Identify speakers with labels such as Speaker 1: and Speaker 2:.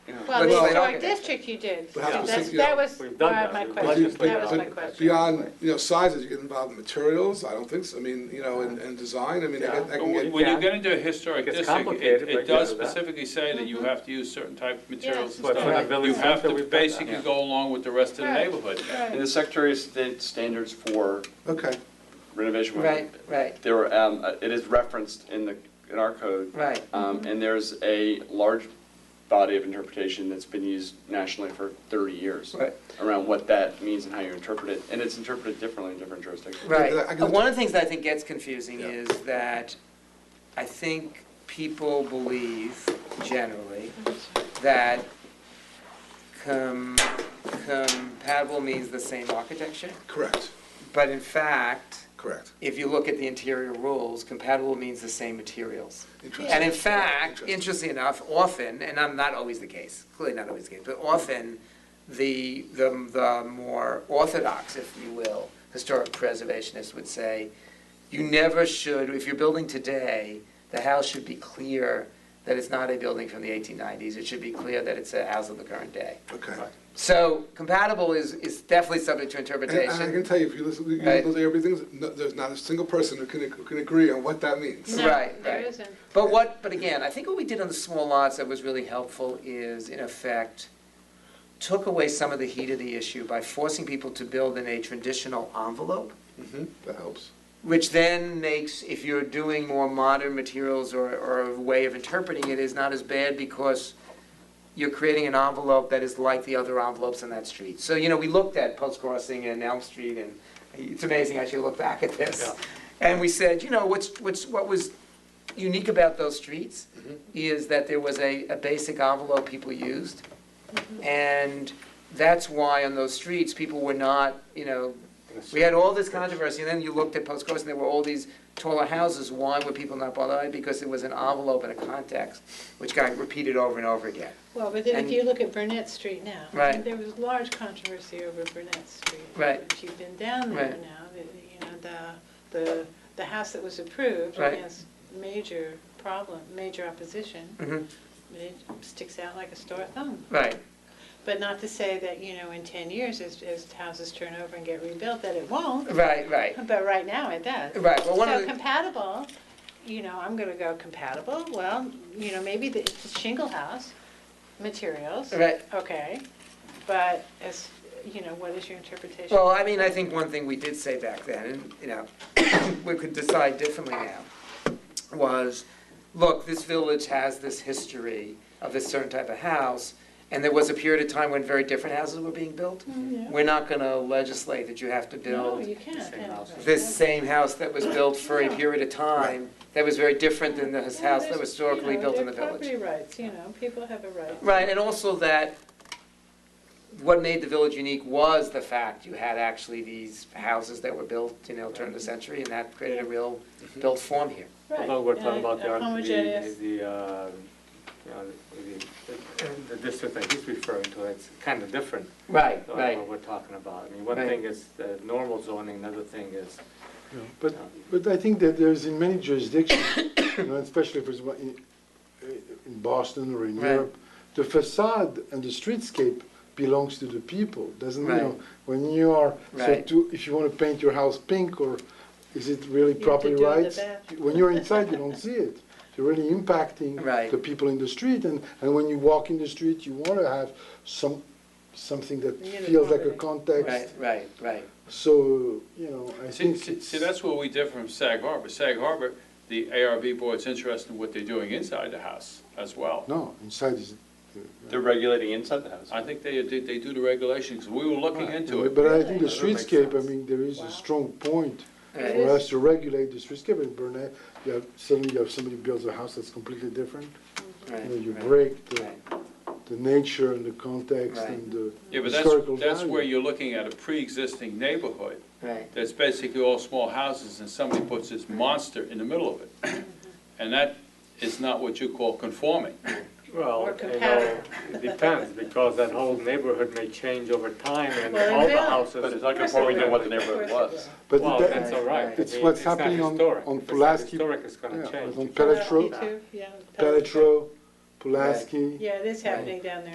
Speaker 1: Well,
Speaker 2: Well,
Speaker 1: the historic
Speaker 2: okay.
Speaker 1: district you did.
Speaker 2: But how do you
Speaker 1: That's-
Speaker 2: think, you
Speaker 1: That
Speaker 2: know,
Speaker 1: was
Speaker 3: we've done
Speaker 1: why
Speaker 3: that.
Speaker 1: my
Speaker 3: But
Speaker 2: But
Speaker 1: question,
Speaker 2: you-
Speaker 3: Questions,
Speaker 1: that was
Speaker 2: but-
Speaker 1: my
Speaker 2: but
Speaker 1: question.
Speaker 2: Beyond, you know, sizes, you get involved in materials, I don't think so, I mean, you know, and, and design, I mean, I get-
Speaker 3: Yeah.
Speaker 2: I can
Speaker 4: When
Speaker 2: get,
Speaker 4: when you
Speaker 3: Yeah.
Speaker 4: get into a historic
Speaker 3: Gets
Speaker 4: district,
Speaker 3: complicated,
Speaker 4: it-
Speaker 3: but
Speaker 4: it does
Speaker 3: yeah, that-
Speaker 4: specifically say that you have to use certain type of materials and
Speaker 3: But for the
Speaker 4: stuff.
Speaker 3: village
Speaker 4: You have
Speaker 3: center,
Speaker 4: to
Speaker 3: we've done that,
Speaker 4: basically
Speaker 3: yeah.
Speaker 4: go along with the rest of the
Speaker 1: Right.
Speaker 4: neighborhood.
Speaker 1: Right.
Speaker 5: In the Secretary of State standards for
Speaker 2: okay,
Speaker 5: renovation. work,
Speaker 6: Right, right,
Speaker 5: There, were, um, uh, it is referenced in the, in our code.
Speaker 6: right.
Speaker 5: Um, and there's a large body of interpretation that's been used nationally for thirty years.
Speaker 6: Right.
Speaker 5: Around what that means and how you interpret it, and it's interpreted differently in different jurisdictions.
Speaker 6: Right.
Speaker 2: I can-
Speaker 6: Uh, One of the things that I think gets confusing
Speaker 2: Yeah.
Speaker 6: is that I think people believe generally that com- compatible means the same architecture.
Speaker 2: correct,
Speaker 6: But in fact,
Speaker 2: correct,
Speaker 6: if you look at the interior rules, compatible means the same materials.
Speaker 2: interesting.
Speaker 6: And in fact,
Speaker 2: Interesting.
Speaker 6: interestingly enough, often, and I'm not always the case, clearly not always the case, but often, the, the, the more orthodox, if you will, historic preservationists would say, you never should, if you're building today, the house should be clear that it's not a building from the eighteen nineties, it should be clear that it's a house of the current day.
Speaker 2: Okay,
Speaker 6: So compatible is, is definitely subject to
Speaker 2: and and I can
Speaker 6: interpretation.
Speaker 2: tell you, if you listen, you
Speaker 6: Right.
Speaker 2: listen to everything, no- there's not a single person who can, who can agree on what that means.
Speaker 1: No,
Speaker 6: Right,
Speaker 1: There
Speaker 6: right.
Speaker 1: isn't.
Speaker 6: But what, but again, I think what we did on the small lots that was really helpful is, in effect, took away some of the heat of the issue by forcing people to build in a traditional envelope,
Speaker 2: Mhm, That helps.
Speaker 6: which then makes, if you're doing more modern materials or, or a way of interpreting it, is not as bad because you're creating an envelope that is like the other envelopes in that street. So, you know, we looked at Post Crossing and Elm Street, and it's amazing, I should look back at this. And we said, you know, what's, what's, what was unique about those streets is that there was a, a basic envelope people used. And that's why on those streets, people were not, you know, we had all this controversy, and then you looked at Post Crossing, there were all these taller houses, why were people not bothered? by it? Because it was an envelope and a context, which got repeated over and over again.
Speaker 1: Well, but then
Speaker 6: And-
Speaker 1: if you look at Burnett Street now.
Speaker 6: Right.
Speaker 1: There was large controversy over Burnett Street.
Speaker 6: Right.
Speaker 1: If you've been down there
Speaker 6: Right.
Speaker 1: now, the- you know, the, the, the house that was approved
Speaker 6: Right.
Speaker 1: against major problem, major opposition,
Speaker 6: Mhm.
Speaker 1: it sticks out like a sore thumb.
Speaker 6: Right,
Speaker 1: But not to say that, you know, in 10 years, as, as houses turn over and get rebuilt, that it won't,
Speaker 6: right, right,
Speaker 1: but right now it does.
Speaker 6: right. Well, one of
Speaker 1: So
Speaker 6: the,
Speaker 1: compatible, you know, I'm gonna go compatible, well, you know, maybe the it's a shingle house, materials,
Speaker 6: right,
Speaker 1: okay. But as, you know, what is your interpretation?
Speaker 6: well, I mean, I think one thing we did say back then, and, you know, we could decide differently now, was, look, this village has this history of this certain type of house, and there was a period of time when very different houses were being built.
Speaker 1: No,
Speaker 6: We're not gonna legislate that you have to build
Speaker 1: Mm, you can't.
Speaker 3: Same house.
Speaker 6: this same house that was built for a period of time that was very different than this house that was historically built in the village.
Speaker 1: Property rights, you know, people have a right.
Speaker 6: Right, and also that what made the village unique was the fact you had actually these houses that were built, you know, turn of the century, and that created a real built form here.
Speaker 1: Right,
Speaker 3: Although we're talking
Speaker 1: and
Speaker 3: about the,
Speaker 1: a
Speaker 3: arch- the,
Speaker 1: homogeneous-
Speaker 3: the, uh, you know, the- the, the district that he's referring to, it's kind of different.
Speaker 6: Right,
Speaker 3: uh, What we're talking about. I mean, one
Speaker 6: Right.
Speaker 3: thing is the normal zoning, another thing is,
Speaker 7: Yeah,
Speaker 3: uh,
Speaker 7: But, but I think that there's in many jurisdictions, you know, especially if it's wa- in, in Boston or in
Speaker 6: Right.
Speaker 7: Europe, the facade and the streetscape belongs to the people, doesn't, you know,
Speaker 6: Right.
Speaker 7: when you are, so
Speaker 6: Right.
Speaker 7: to, if you wanna paint your house pink or is it really
Speaker 1: have to
Speaker 7: properly
Speaker 1: do the
Speaker 7: right?
Speaker 1: bath.
Speaker 7: When you're inside, you don't see it. You're really impacting
Speaker 6: Right.
Speaker 7: the people in the street and, and when you walk in the street, you wanna have some, something that feels like
Speaker 1: Uniformity.
Speaker 7: a
Speaker 6: Right,
Speaker 7: context.
Speaker 6: right, right.
Speaker 7: So, you know, I
Speaker 2: See,
Speaker 7: think
Speaker 2: see,
Speaker 7: it's.
Speaker 2: see, that's where we differ from Sag Harbor. Sag Harbor, the ARB board's interested in what they're doing inside the house as well.
Speaker 7: No, inside is.
Speaker 5: They're regulating inside the house.
Speaker 2: I think they, they they do the regulations, we were looking into it.
Speaker 7: But I think the
Speaker 5: That makes
Speaker 7: streetscape, I
Speaker 5: sense.
Speaker 7: mean, there is
Speaker 1: Wow.
Speaker 7: a strong point
Speaker 1: It
Speaker 7: for
Speaker 1: is.
Speaker 7: us to regulate the streetscape in Burnett. You have, suddenly you have somebody builds a house that's completely different. You know, you break the, the nature and the context
Speaker 6: Right.
Speaker 7: and the
Speaker 4: Yeah, but
Speaker 7: historical
Speaker 4: that's,
Speaker 7: value.
Speaker 4: that's where you're looking at a pre-existing neighborhood
Speaker 6: Right,
Speaker 4: that's basically all small houses and somebody puts this monster in the middle of it. And that is not what you call conforming.
Speaker 3: well,
Speaker 1: Or
Speaker 3: you know, it depends, because that whole neighborhood may change over time and
Speaker 1: Well, it
Speaker 3: all the
Speaker 1: will.
Speaker 3: houses.
Speaker 5: But it's not
Speaker 1: Of course
Speaker 5: conforming to
Speaker 1: it will.
Speaker 5: what the
Speaker 1: Of course
Speaker 5: neighborhood
Speaker 1: it
Speaker 5: was.
Speaker 1: will.
Speaker 7: But
Speaker 3: Well,
Speaker 7: that-
Speaker 3: that's all right.
Speaker 7: It's
Speaker 3: I mean,
Speaker 7: what's
Speaker 3: not
Speaker 7: happening on-
Speaker 3: historic.
Speaker 7: on
Speaker 3: If it's not
Speaker 7: Pulaski-
Speaker 3: Historic, it's
Speaker 7: yeah,
Speaker 3: gonna change.
Speaker 7: on
Speaker 1: Well,
Speaker 7: Petro,
Speaker 1: you too, yeah,
Speaker 7: Petro, Pulaski.
Speaker 1: Yeah, it is happening down there.